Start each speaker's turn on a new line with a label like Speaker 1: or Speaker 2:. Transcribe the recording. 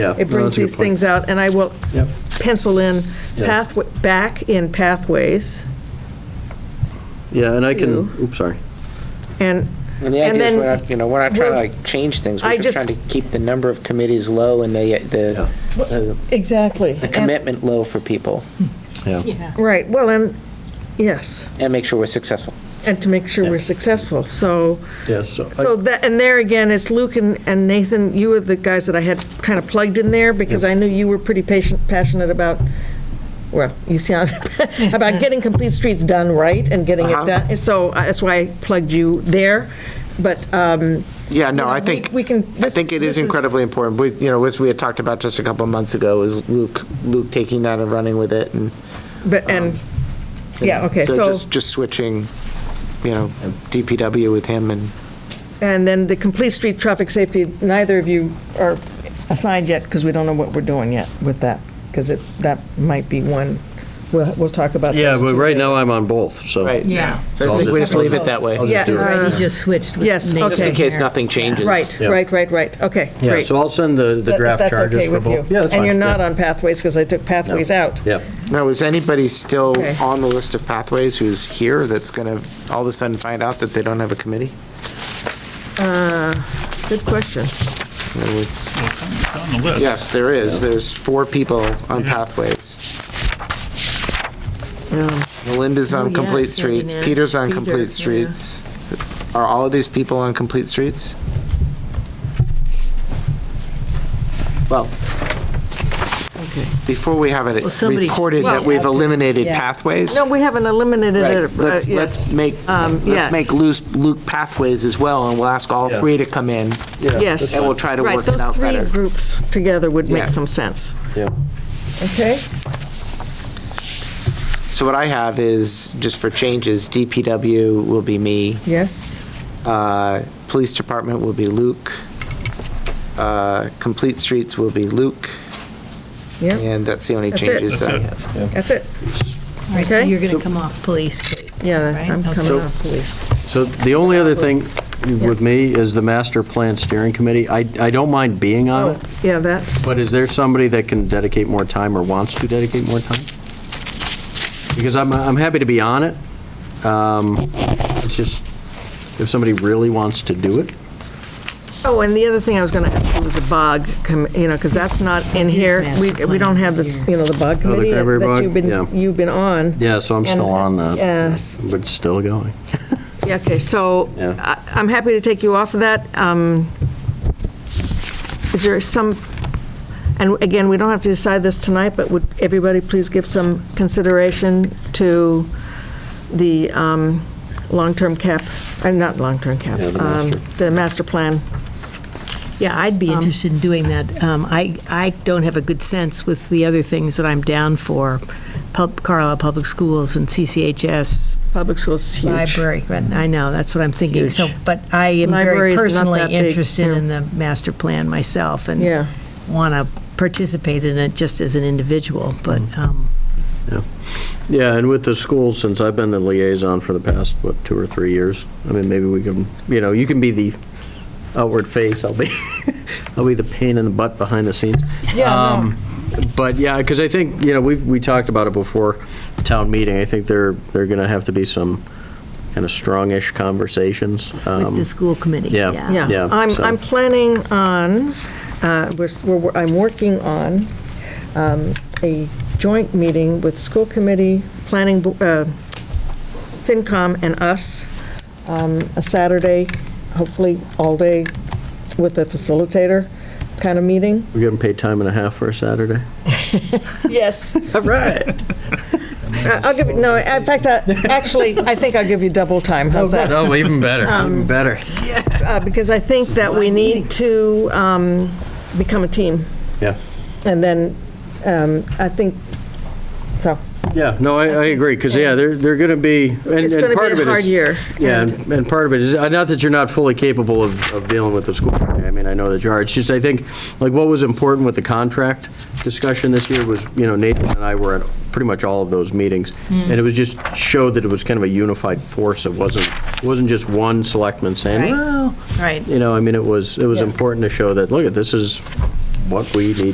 Speaker 1: Yeah.
Speaker 2: It
Speaker 1: No,
Speaker 2: brings
Speaker 1: that's a good
Speaker 2: these
Speaker 1: point.
Speaker 2: things out, and I will
Speaker 1: Yep.
Speaker 2: pencil in
Speaker 1: Yeah.
Speaker 2: pathway, back in pathways,
Speaker 1: Yeah, and I can,
Speaker 2: Two.
Speaker 1: oops, sorry.
Speaker 2: and,
Speaker 3: And the
Speaker 2: And
Speaker 3: idea is,
Speaker 2: then
Speaker 3: we're not, you know, we're not trying to
Speaker 2: we're-
Speaker 3: like change things,
Speaker 2: I
Speaker 3: we're just
Speaker 2: just-
Speaker 3: trying to keep the number of committees low and the, the, the-
Speaker 2: exactly.
Speaker 3: the commitment low for people,
Speaker 1: Yeah.
Speaker 2: Right, well, and, yes,
Speaker 3: and make sure we're successful.
Speaker 2: and to make sure
Speaker 1: Yeah.
Speaker 2: we're successful, so.
Speaker 1: Yeah, so. I-
Speaker 2: So that, and there again, it's Luke and and Nathan, you were the guys that I had kind of plugged in there, because I knew you were pretty patient, passionate about, well, you sound, about getting complete streets done right and getting it
Speaker 3: Uh-huh.
Speaker 2: done, And so uh, that's why I plugged you there, but, um,
Speaker 3: Yeah,
Speaker 2: You
Speaker 3: no,
Speaker 2: know,
Speaker 3: I
Speaker 2: we-
Speaker 3: think,
Speaker 2: we can-
Speaker 3: I
Speaker 2: this-
Speaker 3: think it
Speaker 2: this
Speaker 3: is
Speaker 2: is-
Speaker 3: incredibly important. We, you know, as we had talked about just a couple of months ago, is Luke, Luke taking that and running with it and.
Speaker 2: but, and, yeah, okay, so,
Speaker 3: just, just switching, you know, DPW with him and.
Speaker 2: and then the complete street traffic safety, neither of you are assigned yet, because we don't know what we're doing yet with that, because it, that might be one, we'll, we'll talk about
Speaker 1: Yeah,
Speaker 2: those
Speaker 1: but
Speaker 2: two
Speaker 1: right
Speaker 2: later.
Speaker 1: now I'm on both, so.
Speaker 4: Yeah.
Speaker 3: So I think we just leave it that way.
Speaker 1: I'll
Speaker 2: Yeah,
Speaker 1: just do it.
Speaker 2: uh,
Speaker 4: He just switched with
Speaker 2: Yes,
Speaker 4: Nathan
Speaker 3: Just in
Speaker 2: okay.
Speaker 3: case
Speaker 4: there.
Speaker 3: nothing changes.
Speaker 2: Right,
Speaker 1: Yeah.
Speaker 2: right, right, right, okay, great.
Speaker 1: Yeah, so I'll send the, the
Speaker 2: If
Speaker 1: draft charges for
Speaker 2: That's okay
Speaker 1: both.
Speaker 2: with you.
Speaker 1: Yeah, that's
Speaker 2: And
Speaker 1: fine,
Speaker 2: you're not
Speaker 1: yeah.
Speaker 2: on pathways, because I took
Speaker 1: No.
Speaker 2: pathways out.
Speaker 1: Yeah,
Speaker 3: Now, is anybody still
Speaker 2: Okay.
Speaker 3: on the list of pathways who's here that's going to all of a sudden find out that they don't have a committee?
Speaker 2: Good question.
Speaker 3: There would-
Speaker 5: It's on the list.
Speaker 3: Yes, there is. There's four people on pathways. Yeah, Melinda's
Speaker 4: Oh,
Speaker 3: on
Speaker 4: yeah,
Speaker 3: complete
Speaker 4: it's Sandy
Speaker 3: streets,
Speaker 4: Nash,
Speaker 3: Peter's on
Speaker 4: Peter, yeah.
Speaker 3: complete streets. Are all of these people on complete streets? Well, before we have it
Speaker 4: Well, somebody-
Speaker 3: reported that
Speaker 4: Well-
Speaker 3: we've eliminated
Speaker 4: Yeah.
Speaker 3: pathways.
Speaker 2: No, we haven't eliminated
Speaker 3: Right.
Speaker 2: it. uh,
Speaker 3: Let's, let's
Speaker 2: yes.
Speaker 3: make,
Speaker 2: Um,
Speaker 3: let's
Speaker 2: yes.
Speaker 3: make loose, Luke pathways as well, and we'll ask all
Speaker 1: Yeah.
Speaker 3: three to come in.
Speaker 2: Yes.
Speaker 3: And we'll try to
Speaker 2: Right,
Speaker 3: work it out better.
Speaker 2: Those three groups together would
Speaker 3: Yeah.
Speaker 2: make some sense.
Speaker 1: yeah.
Speaker 2: Okay?
Speaker 3: So what I have is, just for changes, DPW will be me,
Speaker 2: Yes.
Speaker 3: uh, Police Department will be Luke, uh, Complete Streets will be Luke,
Speaker 2: Yep,
Speaker 3: and that's the only
Speaker 2: That's it.
Speaker 3: changes that I
Speaker 5: That's it.
Speaker 3: have.
Speaker 2: that's it.
Speaker 4: All right, so
Speaker 2: Okay.
Speaker 4: you're going to come off police, Kate, right?
Speaker 2: Yeah, I'm
Speaker 4: Okay.
Speaker 2: coming off police.
Speaker 1: So the only other thing with me is the master plan steering committee. I, I don't mind being on
Speaker 2: Oh,
Speaker 1: it,
Speaker 2: yeah, that,
Speaker 1: but is there somebody that can dedicate more time or wants to dedicate more time? Because I'm, I'm happy to be on it. Um, It's just, if somebody really wants to do it,
Speaker 2: oh, and the other thing I was going to ask you was a bog, com- you know, because that's not in
Speaker 4: Here's
Speaker 2: here. We,
Speaker 4: master
Speaker 2: we
Speaker 4: plan
Speaker 2: don't have
Speaker 4: right
Speaker 2: this, you
Speaker 4: here.
Speaker 2: know, the bog
Speaker 1: Oh, the
Speaker 2: committee
Speaker 1: Cranberry
Speaker 2: that
Speaker 1: Bog?
Speaker 2: you've
Speaker 1: Yeah.
Speaker 2: been, you've been on.
Speaker 1: yeah, so I'm still on that.
Speaker 2: Yes.
Speaker 1: But still going.
Speaker 2: Yeah, okay, so
Speaker 1: Yeah.
Speaker 2: I- I'm happy to take you off of that. Um, Is there some, and again, we don't have to decide this tonight, but would everybody please give some consideration to the um, long-term cap, uh, not long-term cap,
Speaker 1: Yeah, the
Speaker 2: um,
Speaker 1: master.
Speaker 2: the master plan?
Speaker 4: Yeah, I'd
Speaker 2: Um,
Speaker 4: be interested in doing that. Um, I, I don't have a good sense with the other things that I'm down for, Pub- Carlisle Public Schools and CCHS,
Speaker 2: Public schools is huge.
Speaker 4: library. But I know, that's what I'm thinking. So,
Speaker 2: Huge.
Speaker 4: but I am
Speaker 2: Library
Speaker 4: very
Speaker 2: is not
Speaker 4: personally
Speaker 2: that big,
Speaker 4: interested
Speaker 2: yeah.
Speaker 4: in the master plan myself and
Speaker 2: Yeah.
Speaker 4: want to participate in it just as an individual, but, um,
Speaker 1: Yeah, and with the schools, since I've been the liaison for the past, what, two or three years, I mean, maybe we can, you know, you can be the outward face, I'll be, I'll be the pain in the butt behind the scenes. Um, But, yeah, because I think, you know, we, we talked about it before town meeting, I think there, there are going to have to be some kind of strongish conversations.
Speaker 4: with the
Speaker 1: Um,
Speaker 4: school committee.
Speaker 1: yeah.
Speaker 2: Yeah,
Speaker 1: Yeah,
Speaker 2: I'm,
Speaker 1: so-
Speaker 2: I'm planning on, uh, we're, s- we're- I'm working on um, a joint meeting with school committee, planning, bo- uh, FinCom and us, um, a Saturday, hopefully all day, with a facilitator kind of meeting.
Speaker 1: We're getting paid time and a half for a Saturday?
Speaker 2: Yes.
Speaker 1: All right.
Speaker 2: I'll give, you no, in fact, I- actually, I think I'll give you double time, how's that?
Speaker 1: Oh, even better, even better.
Speaker 2: Uh, Because I think that we need to um, become a team.
Speaker 1: Yeah.
Speaker 2: And then, um, I think, so,
Speaker 1: Yeah, no, I, I agree, because, yeah, they're, they're going to be, and
Speaker 2: it's
Speaker 1: and
Speaker 2: going
Speaker 1: part
Speaker 2: to
Speaker 1: of
Speaker 2: be
Speaker 1: it
Speaker 2: a hard
Speaker 1: is,
Speaker 2: year.
Speaker 1: Yeah,
Speaker 2: and-
Speaker 1: and and part of it is, uh, not that you're not fully capable of, of dealing with the school, committee. I mean, I know that you are, it's just, I think, like, what was important with the contract discussion this year was, you know, Nathan and I were at pretty much all of those meetings,
Speaker 2: Mm.
Speaker 1: and it was just, showed that it was kind of a unified force, it wasn't, it wasn't just one selectman saying,
Speaker 4: Right.
Speaker 1: well,
Speaker 4: Right.
Speaker 1: you know, I mean, it was, it was important to show that, look, this is what we need